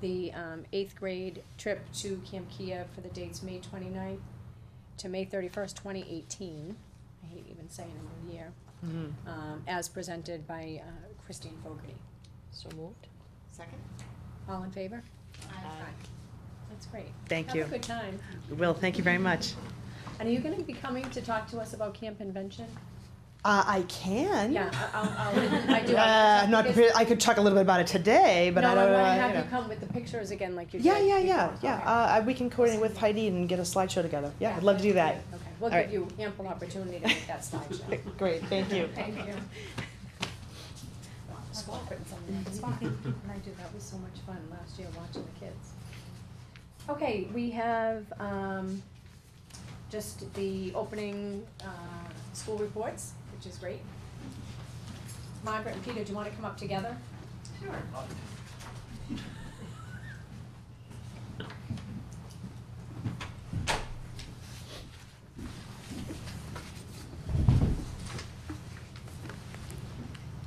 the um, eighth grade trip to Camp Kia for the dates May 29th to May thirty-first, twenty eighteen. I hate even saying a new year, um, as presented by uh, Christine Fogarty. So moved. Second? All in favor? Uh, Aye. That's great. Thank you. Have a good time. Will, thank you very much. And are you gonna be coming to talk to us about Camp Invention? Uh, I can. Yeah, I- I'll, I'll, I do. Uh, I'm not prepared. I could talk a little bit about it today, but No, I don't know. wanna you have know. you come with the pictures again like you did. yeah, yeah, yeah, before. yeah. Okay. Uh, I- we can coordinate with Heidi and get a slideshow together. Yeah, I'd love to do that. Okay, we'll All right. give you ample opportunity to make that slideshow. Great, thank you. Thank you. School putting something on the spot. And I do, that was so much fun last year watching the kids. Okay, we have, um, just the opening, uh, school reports, which is great. Margaret and Peter, do you wanna come up together?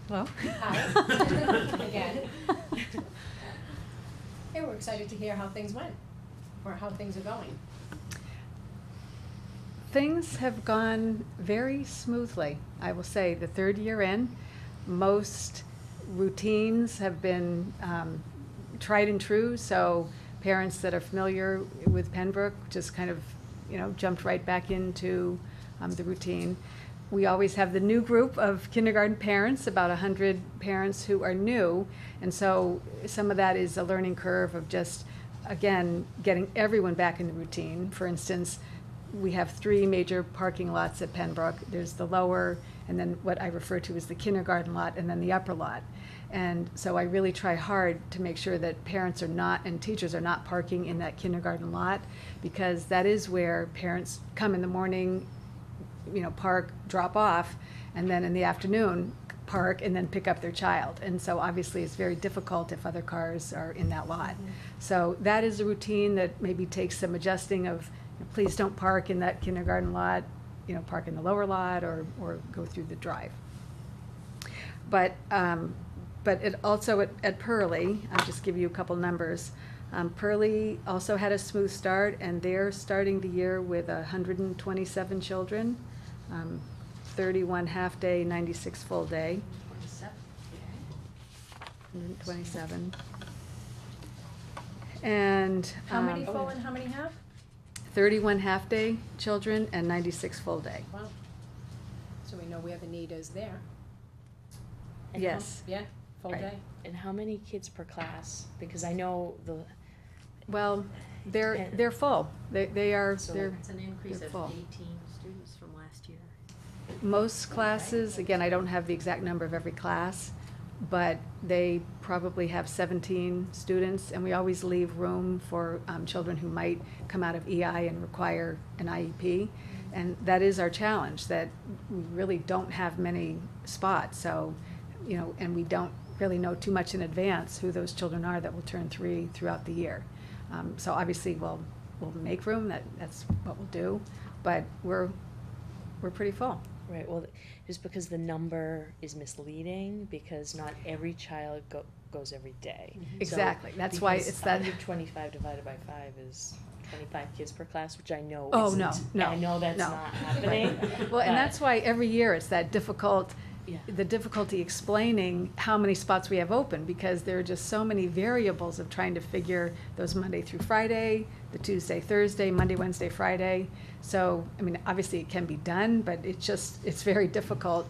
Well. Hi. Again. Hey, we're excited to hear how things went, or how things are going. Things have gone very smoothly, I will say. The third year in, most routines have been um, tried and true, so parents that are familiar with Pembroke just kind of, you know, jumped right back into um, the routine. We always have the new group of kindergarten parents, about 100 parents who are new, and so some of that is a learning curve of just, again, getting everyone back in the routine. For instance, we have three major parking lots at Pembroke. There's the lower, and then what I refer to as the kindergarten lot, and then the upper lot. And so I really try hard to make sure that parents are not, and teachers are not parking in that kindergarten lot, because that is where parents come in the morning, you know, park, drop off, and then in the afternoon, park and then pick up their child. And so obviously it's very difficult if other cars are in that lot. So that is a routine that maybe takes some adjusting of, you know, please don't park in that kindergarten lot, you know, park in the lower lot or, or go through the drive. But, um, but it also at, at Pearlie, I'll just give you a couple numbers. Um, Pearlie also had a smooth start and they're starting the year with hundred and twenty-seven children. Um, thirty-one half-day, ninety-six full-day, hundred and twenty-seven. And, How many um, full and how many half? thirty-one half-day children and ninety-six full-day. Wow. So we know where the need is there. And Yes. how- Yeah, full Right. day. And how many kids per class? Because I know the, Well, they're, Yeah. they're full. They, they are, So- they're, It's an increase They're of full. eighteen students from last year. most classes, again, I don't have the exact number of every class, but they probably have seventeen students, and we always leave room for, um, children who might come out of EI and require an IEP. And that is our challenge, that we really don't have many spots, so, you know, and we don't really know too much in advance who those children are that will turn three throughout the year. Um, so obviously, we'll, we'll make room, that, that's what we'll do, but we're, we're pretty full. right, well, just because the number is misleading, because not every child go, goes every day. Mm-hmm. Exactly, that's why it's that, Hundred twenty-five divided by five is twenty-five kids per class, which I know Oh, isn't. no, And I no, know that's no. not happening. well, and but- that's why every year it's that difficult, Yeah. the difficulty explaining how many spots we have open, because there are just so many variables of trying to figure those Monday through Friday, the Tuesday, Thursday, Monday, Wednesday, Friday. So, I mean, obviously it can be done, but it's just, it's very difficult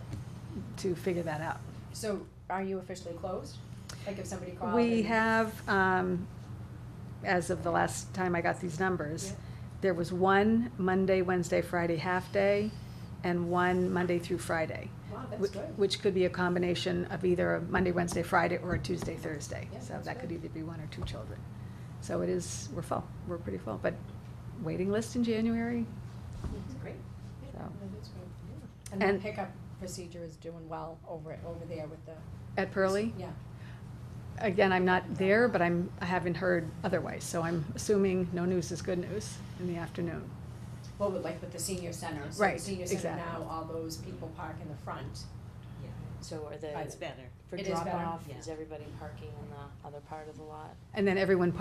to figure that out. So are you officially closed? Like if somebody called? We and- have, um, as of the last time I got these numbers, Yeah. there was one Monday, Wednesday, Friday half-day, and one Monday through Friday. Wow, that's whi- good. Which could be a combination of either a Monday, Wednesday, Friday, or a Tuesday, Thursday. Yeah, So that's that could good. either be one or two children. So it is, we're full, we're pretty full, but waiting list in January, That's great. Yeah, So. no, that's great. And the And- pickup procedure is doing well over, it- over there with the. at Pearlie. Yeah. Again, I'm not there, but I'm, I haven't heard otherwise, so I'm assuming no news is good news in the afternoon. Well, with like with the senior center. So the Right, senior center exactly. now, all those people park in the front. So are the, It's better. for It is better. drop-off, Yeah. is everybody parking in the other part of the lot? And then everyone